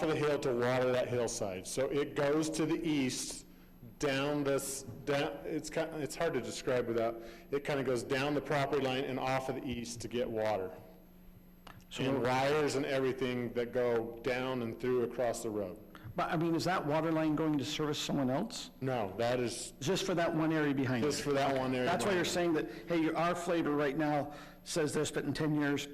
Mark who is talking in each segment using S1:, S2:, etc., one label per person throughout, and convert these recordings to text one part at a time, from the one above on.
S1: for the hill to water that hillside. So it goes to the east, down this, down, it's kind, it's hard to describe without, it kind of goes down the property line and off of the east to get water. And wires and everything that go down and through across the road.
S2: But, I mean, is that water line going to service someone else?
S1: No, that is
S2: Just for that one area behind
S1: just
S2: it?
S1: for that one area.
S2: That's why
S1: alone.
S2: you're saying that, hey, your- our flavor right now says this, but in 10 years,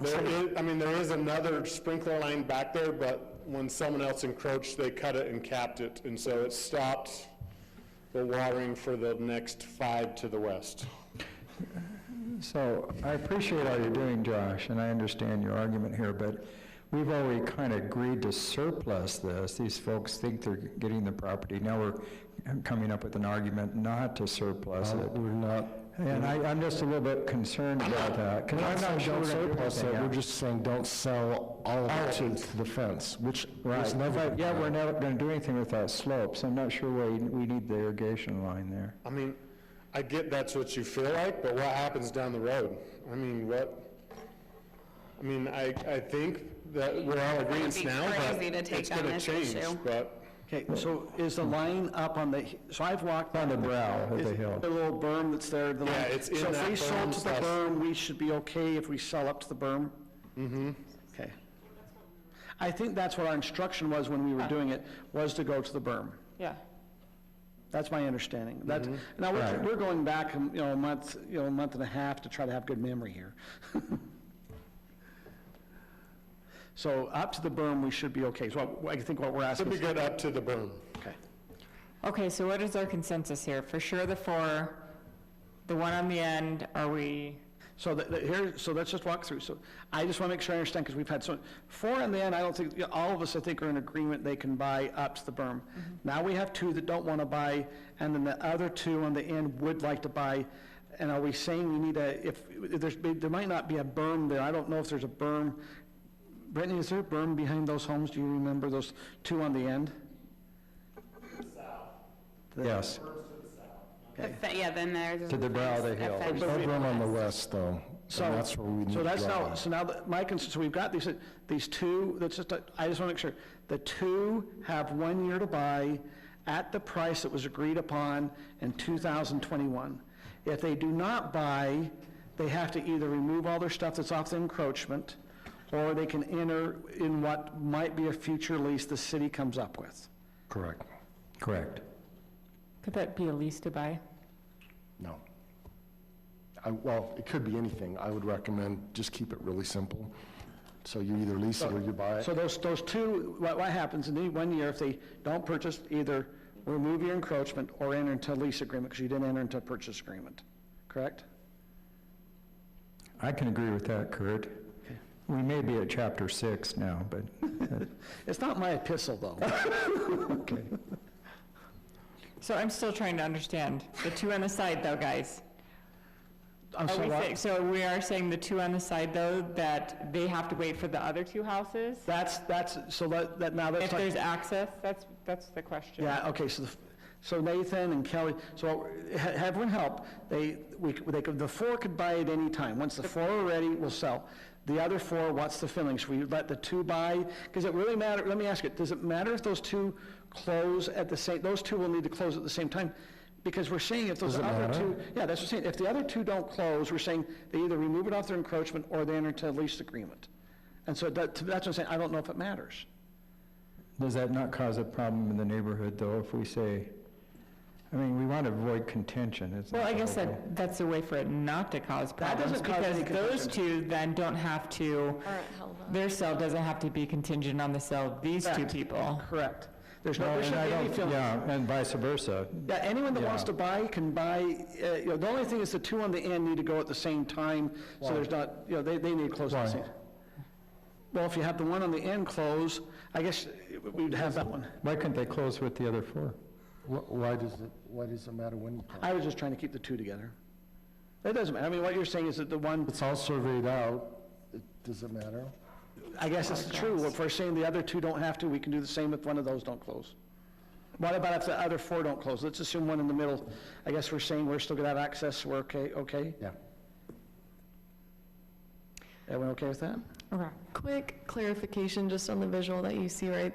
S1: There is, I mean, there is another sprinkler line back there, but when someone else encroached, they cut it and capped it, and so it stopped the watering for the next five to the west.
S3: So I appreciate all you're doing, Josh, and I understand your argument here, but we've already kind of agreed to surplus this. These folks think they're getting the property. Now we're coming up with an argument not to surplus it.
S4: We're not,
S3: And I, I'm just a little bit concerned about that. 'cause
S4: I'm
S3: so
S4: not
S3: sure
S4: saying
S3: we're gonna do
S4: surplus it,
S3: anything
S4: we're
S3: else.
S4: just saying don't sell all of it
S3: All of
S4: to- to the fence, which was
S3: Right,
S4: never.
S3: but yeah, we're never gonna do anything with that slope, so I'm not sure why you- we need the irrigation line there.
S1: I mean, I get that's what you feel like, but what happens down the road? I mean, what, I mean, I, I think that we're all agreeing
S5: be
S1: now, but
S5: crazy to take
S1: it's
S5: on
S1: gonna
S5: this
S1: change,
S5: issue.
S1: but
S2: okay, so is the line up on the, so I've walked.
S3: On the brow of the
S2: Is it
S3: hill.
S2: The little berm that's there. the line?
S1: Yeah, it's in
S2: So if
S1: that
S2: we sold
S1: berm
S2: to the
S1: slash-
S2: berm, we should be okay if we sell up to the berm? Mm-hmm. Okay. I think that's what our instruction was when we were doing it, was to go to the berm.
S5: Yeah.
S2: That's my understanding. That's,
S1: Mm-hmm.
S2: now, we're, we're going back, um, you know, a month, you know, a month and a half to try to have good memory here. So up to the berm, we should be okay. So I I think what we're
S1: it'd
S2: asking
S1: be
S2: is,
S1: good up to the berm.
S2: okay.
S5: Okay, so what is our consensus here? For sure the four, the one on the end, are we,
S2: So that, that here, so let's just walk through. So I just want to make sure I understand, because we've had so, four in the end, I don't think, yeah, all of us, I think, are in agreement they can buy up to the berm. Now we have two that don't want to buy, and then the other two on the end would like to buy. And are we saying we need a, if, if there's, there might not be a berm there, I don't know if there's a berm. Brittany, is there a berm behind those homes? Do you remember those two on the end?
S3: Yes,
S5: the fe- yeah, then there's.
S3: To the brow of the
S5: fence,
S3: hill.
S5: a
S4: There's
S5: fence.
S4: no room on the west, though,
S2: So,
S4: and that's where we need
S2: so
S4: to
S2: that's
S4: draw.
S2: now, so now, that- my concern, so we've got these, these two, that's just, a- I just want to make sure. The two have one year to buy at the price that was agreed upon in 2021. If they do not buy, they have to either remove all their stuff that's off the encroachment, or they can enter in what might be a future lease the city comes up with.
S4: Correct,
S3: correct.
S5: Could that be a lease to buy?
S4: no. I, well, it could be anything, I would recommend, just keep it really simple. So you either lease it or you buy it.
S2: So those, those two, what, what happens in any one year if they don't purchase, either remove your encroachment or enter into a lease agreement, because you didn't enter into a purchase agreement, correct?
S3: I can agree with that, Kurt. We may be at chapter six now, but,
S2: It's not my epistle, though.
S3: okay.
S5: So I'm still trying to understand. The two on the side though, guys.
S2: I'm
S5: Are
S2: sorry,
S5: we
S2: what?
S5: saying, so we are saying the two on the side though, that they have to wait for the other two houses?
S2: That's, that's, so that, that, now
S5: If
S2: that's
S5: there's
S2: like,
S5: access, that's, that's the question.
S2: yeah, okay, so, the f- so Nathan and Kelly, so ha- have one help, they, we, c- they could, the four could buy at any time, once the four are ready, we'll sell. The other four, what's the feeling, should we let the two buy? Because it really matter, let me ask you, does it matter if those two close at the same, those two will need to close at the same time? Because we're saying if those
S4: Does it
S2: other
S4: matter?
S2: two, yeah, that's what I'm saying, if the other two don't close, we're saying they either remove it off their encroachment or they enter into a lease agreement. And so that, that's what I'm saying, I don't know if it matters.
S3: Does that not cause a problem in the neighborhood, though, if we say, I mean, we want to avoid contention, it's.
S5: Well,
S3: not
S5: I guess
S3: the whole
S5: that, that's a way for it not to cause problems,
S2: doesn't cause
S5: because
S2: any
S5: those two then don't have to, their sell doesn't have to be contingent on the sell of these two
S2: Correct.
S5: people.
S2: Correct. There's
S3: thing.
S2: no,
S3: No,
S2: there
S3: and
S2: shouldn't
S3: I
S2: be any
S3: don't-
S2: feeling.
S3: Yeah, and vice versa.
S2: Yeah, anyone that wants
S3: Yeah.
S2: to buy can buy, uh, you know, the only thing is the two on the end need to go at the same time, so there's not, you know, they, they need to close at the
S3: Why?
S2: same. Well, if you have the one on the end close, I guess uh, we'd have that one.
S3: Why couldn't they close with the other four?
S4: Wh- Why does it, why does it matter when you call?
S2: I was just trying to keep the two together. That doesn't matter, I mean, what you're saying is that the one,
S4: It's all surveyed out, It- does it matter?
S2: I guess it's true, if we're saying the other two don't have to, we can do the same if one of those don't close. What about if the other four don't close? Let's assume one in the middle, I guess we're saying we're still gonna have access, we're okay, okay?
S4: Yeah.
S6: Everyone okay with that?
S7: Okay.
S5: Quick clarification, just on the visual that you see right there.